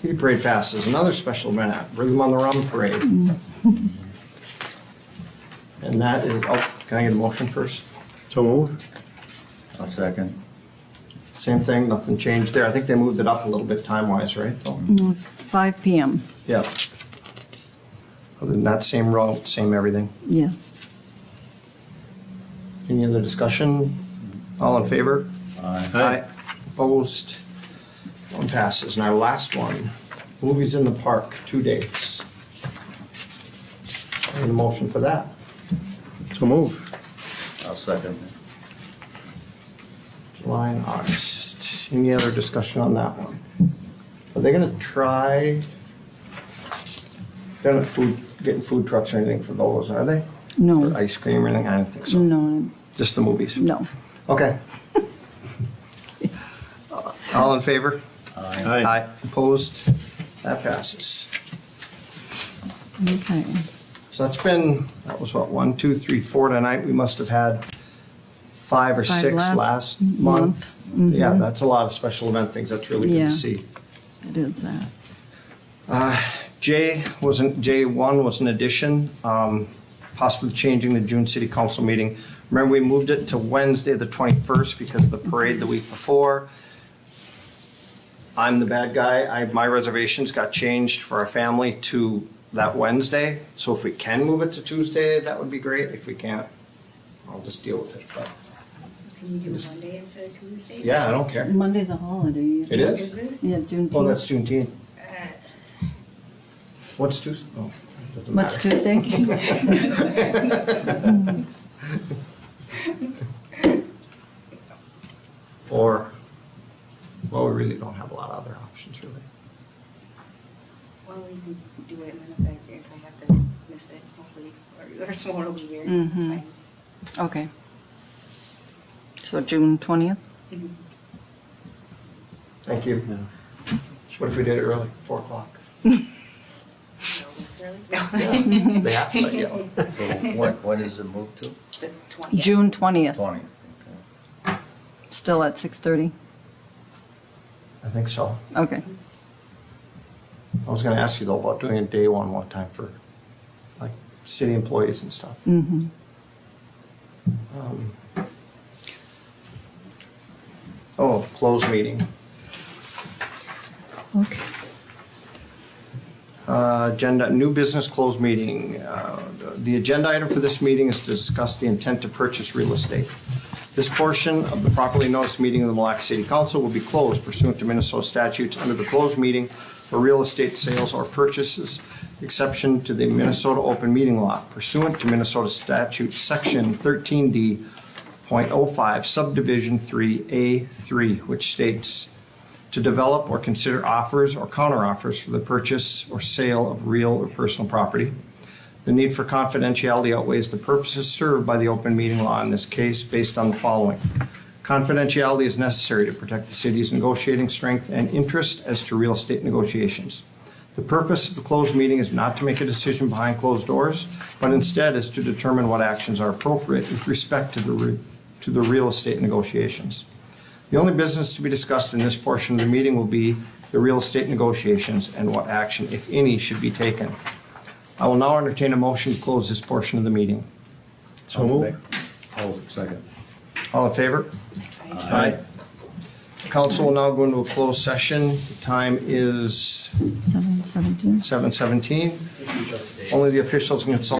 Kitty Parade passes, another special event, Rhythm on the Run Parade. And that is, oh, can I get a motion first? So moved. A second. Same thing, nothing changed there. I think they moved it up a little bit time-wise, right? though? 5 PM, Yeah. Other than that, same route, same everything. yes. Any other discussion? All in favor? Aye. Opposed? One passes. And our last one, movies in the park, two dates. Any motion for that? So moved. A second. July and August. Any other discussion on that one? Are they gonna try? They're not food, getting food trucks or anything for those, are they? No. Or ice cream or anything? I don't think so. No, Just the movies? no. Okay. All in favor? Aye. Opposed? That passes. Okay. So that's been, that was what, one, two, three, four tonight. We must have had five or Five six last last month. Mm-hmm. month. Yeah, that's a lot of special event things. That's really good Yeah. to see. It is that. J was an, J one was an addition, um, possibly changing the June city council meeting. Remember, we moved it to Wednesday, the twenty-first, because of the parade the week before. I'm the bad guy. I, my reservations got changed for our family to that Wednesday. So if we can move it to Tuesday, that would be great. If we can't, I'll just deal with it. But, Can you do Monday instead of Tuesday? yeah, I don't care. Monday's a holiday. It is? Is it? Yeah, Juneteenth. Oh, that's Juneteenth. Uh, What's Tuesday? Oh, doesn't matter. What's Tuesday? Or, well, we really don't have a lot of other options, really. Well, we can do it in effect if I have to miss it, hopefully, or, or someone will be here, it's Mhm. fine. Okay. So June 20th? Mhm. Thank you. What if we did it early, four o'clock? Really? No. They have to let you know. So what, what is it moved to? The twentieth. June 20th, Twenty. still at 6:30? I think so. Okay. I was gonna ask you though about doing a day one one time for like city employees and stuff. Mm-hmm. Um, Oh, closed meeting. Okay. Uh, Agenda, new business closed meeting. Uh, The agenda item for this meeting is to discuss the intent to purchase real estate. This portion of the properly noticed meeting of the Mille Lacs City Council will be closed pursuant to Minnesota statutes under the closed meeting for real estate sales or purchases, exception to the Minnesota open meeting law pursuant to Minnesota statute section thirteen D point oh five subdivision three A three, which states to develop or consider offers or counteroffers for the purchase or sale of real or personal property. The need for confidentiality outweighs the purposes served by the open meeting law in this case based on the following. Confidentiality is necessary to protect the city's negotiating strength and interest as to real estate negotiations. The purpose of the closed meeting is not to make a decision behind closed doors, but instead is to determine what actions are appropriate with respect to the, re- to the real estate negotiations. The only business to be discussed in this portion of the meeting will be the real estate negotiations and what action, if any, should be taken. I will now entertain a motion to close this portion of the meeting. So moved. Oh, second. All in favor? Aye. Council will now go into a closed session. The Time is 7:17? 7:17. Only the officials and consultants